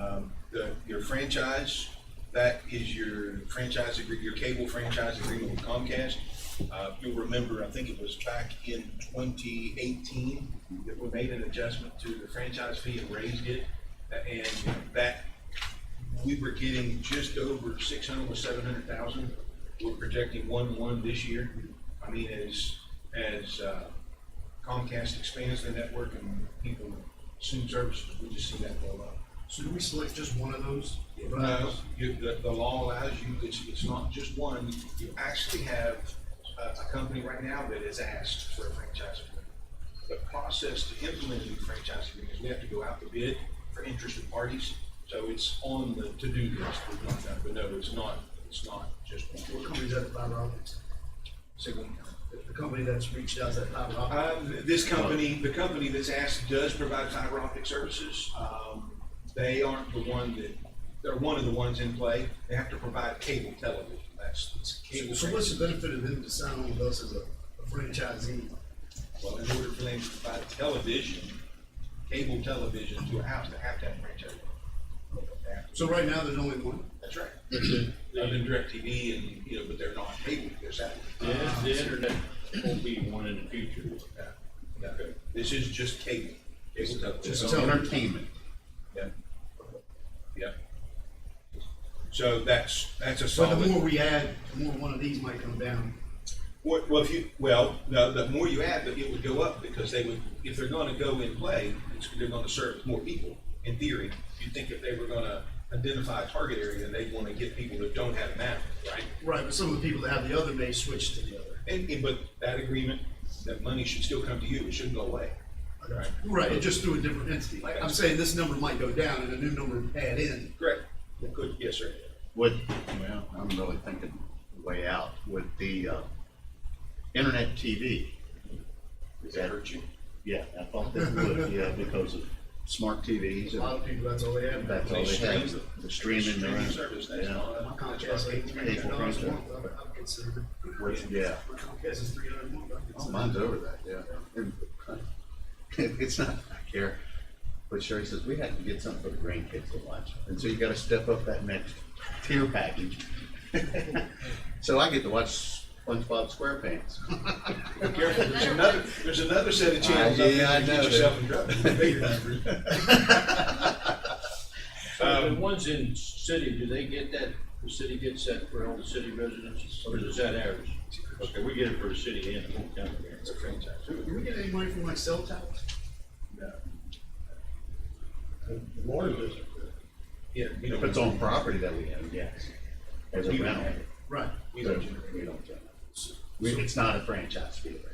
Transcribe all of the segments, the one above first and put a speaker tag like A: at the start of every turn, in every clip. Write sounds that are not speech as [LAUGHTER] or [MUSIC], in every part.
A: um, franchise, that is your franchise agreement, your cable franchise agreement with Comcast. Uh, you'll remember, I think it was back in twenty eighteen, that we made an adjustment to the franchise fee and raised it. And that we were getting just over six hundred or seven hundred thousand. We're projecting one one this year. I mean, as, as uh, Comcast expands their network and people assume services, we just see that go up.
B: So do we select just one of those? Uh,
A: No, you, the, the law allows you, it's, it's not just one, you actually have a, a company right now that has asked for a franchise agreement. The process to implement a new franchise agreement is we have to go out to bid for interested parties, so it's on the to-do list, we've got that, but no, it's not, it's not just
B: What
A: one.
B: company is that, fiber optics?
A: Single account.
B: The company that's reached out, is that fiber
C: Uh,
B: optics?
A: Um, this company, the company that's asked does provide fiber optic services. Um, they aren't the one that, they're one of the ones in play. They have to provide cable television. That's, it's cable.
B: So what's the benefit of them to sign on with us as a a franchisee?
A: Well, in order for them to provide television, cable television to a house, they have to have franchise. They have to-
B: So right now, there's only one?
A: That's right. Other than DirecTV and, you know, but they're not cable, they're satellite.
D: The, the internet will be one in the future.
A: Yeah. Yeah. This is just cable. Cable television.
B: Just
A: So-
B: tell-
C: Entertainment.
A: Yeah. Yeah. So that's, that's a
B: But the more
A: solid,
B: we add, the more one of these might come down.
A: well, well, if you, well, no, the more you add, but it would go up because they would, if they're gonna go in play, it's, they're gonna serve more people, in theory. You'd think if they were gonna identify a target area, they'd wanna get people that don't have an app, right?
B: Right, but some of the people that have the other may switch to the other.
A: And, and, but that agreement, that money should still come to you, it shouldn't go away. Right.
B: Right, it just through a different entity. Like, I'm saying this number might go down and a new number add in.
A: Correct? Good, yes, sir.
C: Would, well, I'm really thinking way out, would the, uh, internet TV,
A: Does that hurt you?
C: yeah, I thought that would, yeah, because of smart TVs
B: A lot
C: and
B: of people, that's all they have.
C: that's all they have, the streaming. their own-
A: Streaming service, that's
C: yeah.
A: not.
B: My
A: that's
B: Comcast,
A: not-
B: like, three hundred dollars a month, I'm, I'm considering.
C: Which- Yeah,
B: My Comcast is three hundred a month, I'm
C: oh,
B: considering.
C: mine's over that, yeah. And [LAUGHS] It's not, I care, but Sherry says, we have to get something for the grandkids to watch, and so you gotta step up that next tier package. [LAUGHS] So I get to watch SpongeBob SquarePants.
A: Be careful, there's another, there's another set of channels
C: Uh,
A: out
C: yeah,
A: there
C: I
A: to get
C: know that.
A: yourself in trouble. Figure that.
D: So the ones in city, do they get that, the city gets that for all the city residents, or is that ours? Okay, we get it for the city and the whole county.
A: It's a franchise.
B: Do we get any money from like cell towers?
A: No.
D: Water does
A: Yeah, we
C: If it's
A: don't,
C: on property that we have, yes. As a
A: We don't
C: rental.
A: have it.
B: Right.
A: we don't
C: So,
A: generate.
C: We don't generate. We- It's not a franchise fee, right?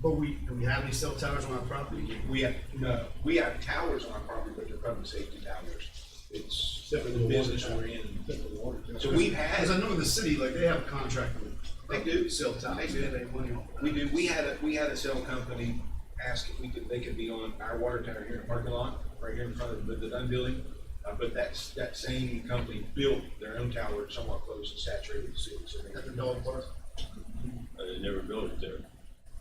B: But we, do we have any cell towers on our property?
A: We have, no, we have towers on our property, but they're public safety towers. It's
B: Except for the water
A: business
B: tower.
A: we're in. So we've
B: As I
A: had,
B: know in the city, like they have a contract with.
A: They do.
B: Cell towers, they have any money on.
A: we do, we had a, we had a cell company ask if we could, they could be on our water tower here in the parking lot, right here in front of the the Dunn building. Uh, but that's, that same company built their own tower somewhat close and saturated the city, so they
B: At the dog park.
D: Uh, They never built it there.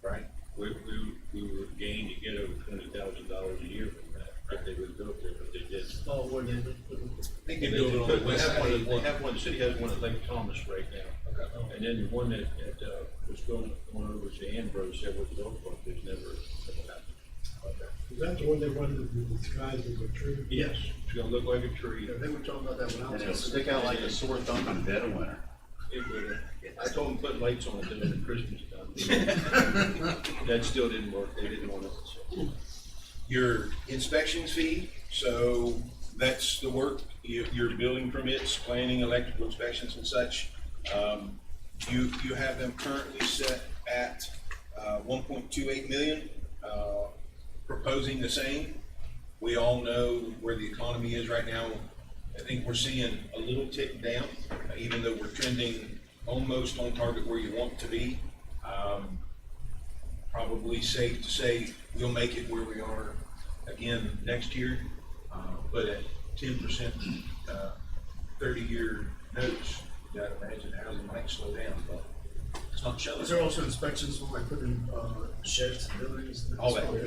A: right?
D: We, we, we were gained to get over twenty thousand dollars a year from that, if they would built there, but they did.
B: Oh, where they.
A: They
D: They
A: can do it on the
D: put- they
A: west
D: have one,
A: side.
D: they have one, the city has one at Lake Thomas right now.
A: Okay.
D: And then the one that, that, uh, was going, going over to Ambrose, that was built, but there's never.
E: Is that the one they wanted to be disguised as a tree?
D: Yes, it's gonna look like a tree.
B: Yeah, they were talking about that when I
C: And
B: was.
C: it'll stick out like a sore thumb in the dead of winter.
D: It would, I told them put lights on it during the Christmas
A: [LAUGHS]
D: time. That still didn't work, they didn't want it. so.
A: your inspections fee, so that's the work, your, your building permits, planning, electrical inspections and such. Um, you, you have them currently set at, uh, one point two eight million, uh, proposing the same. We all know where the economy is right now. I think we're seeing a little tick down, uh, even though we're trending almost on target where you want to be. Um, probably safe to say we'll make it where we are again next year, uh, but at ten percent, uh, thirty-year notes, you gotta imagine housing might slow down, but it's not showing.
B: Is there also inspections when I put in, uh, sheds and buildings?
A: All that.